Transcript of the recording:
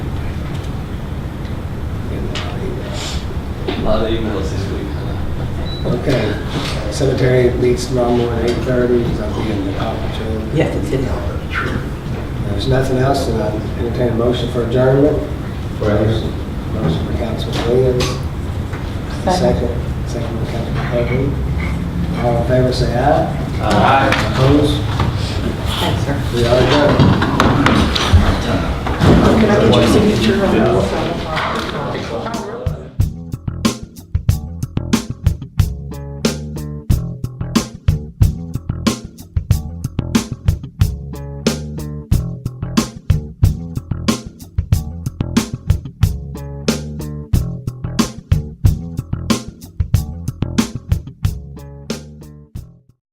A lot of emails this week, huh? Okay, uh, cemetery meets tomorrow morning, eight thirty, because I'll be in the conference room. Yes, it's in there. If There's nothing else, and I entertain a motion for adjournment. Motion motion for Councilman Williams. Second. Second, second for Councilman Hogan. All in favor, say aye. Aye. Opposed? Thanks, sir. We are adjourned. Can I get your signature on the outside?